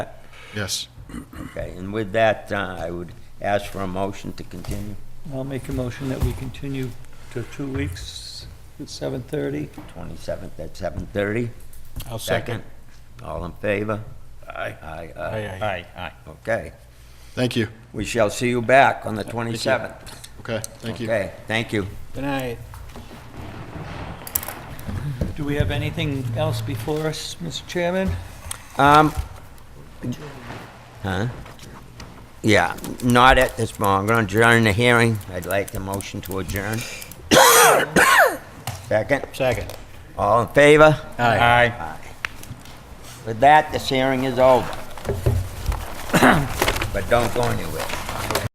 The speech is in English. Yes. Okay, and with that, uh, I would ask for a motion to continue. I'll make a motion that we continue to two weeks at 7:30. 27th at 7:30. I'll second. All in favor? Aye. Aye, Aye, aye. aye. Aye, aye. Okay. Thank you. We shall see you back on the 27th. Okay, thank you. Okay, thank you. Good night. Do we have anything else before us, Mr. Chairman? Um, huh? Yeah, not at this moment. I'm going to adjourn the hearing. I'd like the motion to adjourn. Second? Second. All in favor? Aye. With that, this hearing is over. But don't go anywhere.